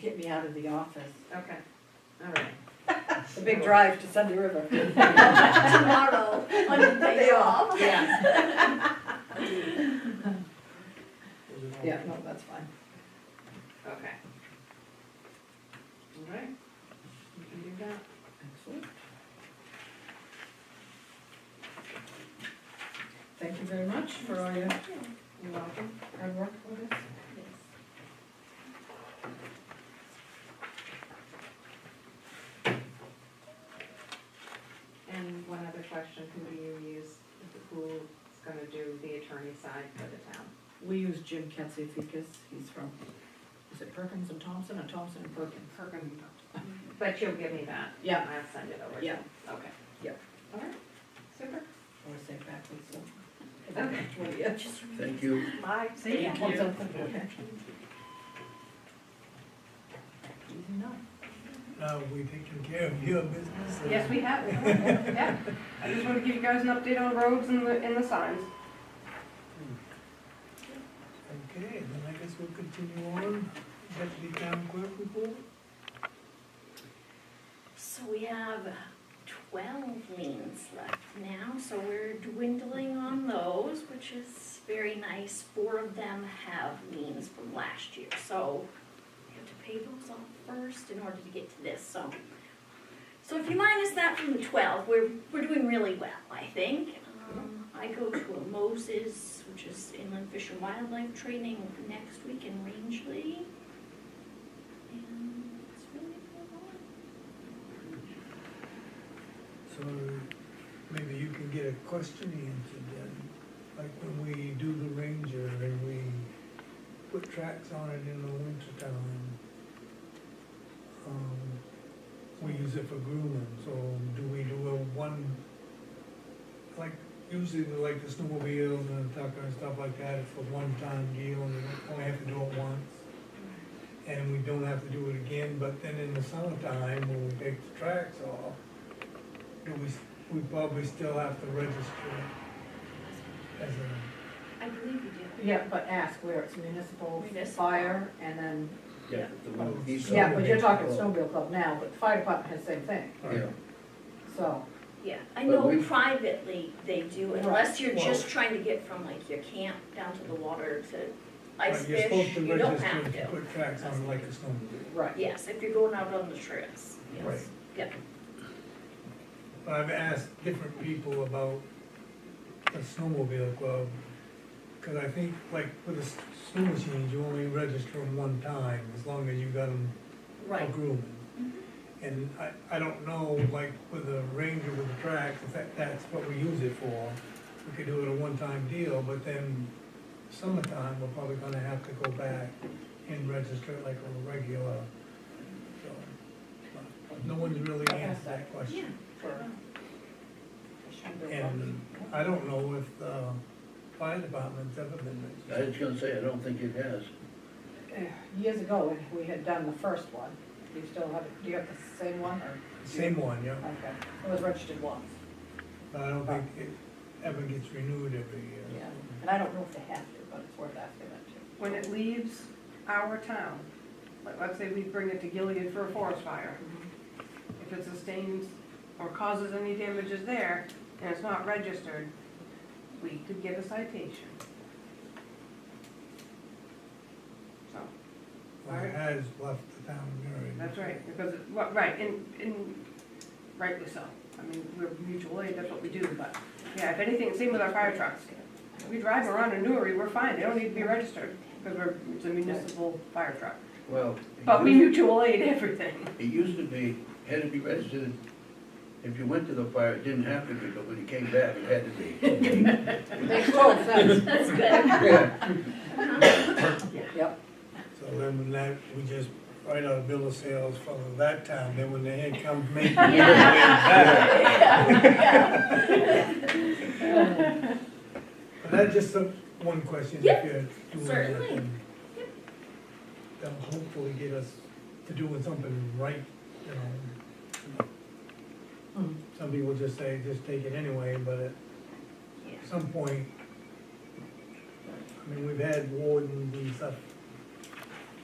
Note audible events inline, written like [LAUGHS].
get me out of the office. Okay, all right. The big drive to Sunday [LAUGHS] River. tomorrow on your day They [LAUGHS] off. Yeah. Yeah, no, that's fine. Okay. All right. We can do that. Excellent. Thank you very much for all your You're welcome. hard work for this. And one other question, who do you use, who's gonna do the attorney side for the town? We use Jim Katsifikas, he's from, is it Perkins and Thompson or Thompson and Perkins? Perkins and Thompson. But you'll give me that? Yeah. I'll send it over to Yeah. you. Okay. Yeah. All right, super. Or say backwards, so. Okay. Well, yeah. Thank you. Bye. See ya. One something, okay. Easy enough. Now, we taking care of your business? Yes, we [LAUGHS] have, yeah. I just wanted to give you guys an update on the roads and the, and the signs. Okay, then I guess we'll continue on. Deputy Town Clerk report? So we have twelve lanes left now, so we're dwindling on those, which is very nice. Four of them have liens from last year, so we have to pay those off first in order to get to this, so. So if you minus that from the twelve, we're, we're doing really well, I think. Um, I go to a Moses, which is inland fish and wildlife training next week in Rangeley. And it's really going on. So maybe you can get a question answered then. Like when we do the ranger and we put tracks on it in the winter time. Um, we use it for grooming, so do we do a one, like usually the- like the snowmobiles and the tucker and stuff like that, it's a one-time deal and we only have to do it once. And we don't have to do it again, but then in the summertime, when we take the tracks off, do we, we probably still have to register it as a, I believe you do. Yeah, but ask where it's municipal, Municipal. fire, and then, Yeah, the one with these- yeah, but you're talking snowmobile club now, but the fire department has the same thing, Yeah, so. Yeah, I But know we- privately they do, Right. unless you're Well- just trying to get from like your camp down to the water to ice like, you're supposed fish, to you don't register have if you to. put tracks on like a snowmobile. Right. Yes, if you're going out on the trails, Right. yes, yep. But I've asked different people about the snowmobile club, cause I think like with the s- snow machines, you only register them one time, as long as you got them for Right, grooming. And I, I don't know, like with the ranger with the tracks, if that, that's what we use it for. We could do it a one-time deal, but then summertime, we're probably gonna have to go back and register it like a regular, so. but No one's really asked that yeah, question. For- And I don't know if the fire department's ever been I registered. was gonna say, I don't think it has. Eh, Years ago, when we had done the first one, do you still have, it? do you have the same one, or? Same one, yeah, Okay, it was registered once, but I don't think it ever gets renewed every year. yeah, and I don't know if they have to, but it's worth asking them to. When it leaves our town, like, let's say we bring it to Gilead for a forest fire. If it sustains or causes any damages there, and it's not registered, we could get a citation. So, Or it has left the town area. that's right, because, it- well, right, and, and rightly so. I mean, we're mutual aid, that's what we do, but, yeah, if anything, same with our fire trucks. We drive around in Newry, we're fine, they don't need to be registered, because we're, it's a municipal fire truck. Well. But we it mutual aid everything. used- It used to be, had to be registered, if you went to the fire, it didn't have to be, but when you came back, it had to [LAUGHS] be. Makes total sense, [LAUGHS] that's good. Yeah, yep, So then when that, we just write out a bill of sales for that town, then when the head comes making. But that's just a- one question, if Yep, you're doing that, certainly. then that'll hopefully get us to doing something right, you know. Hmm. Some people just say, just take it anyway, but it Yeah. some point, I mean, we've had wardens and stuff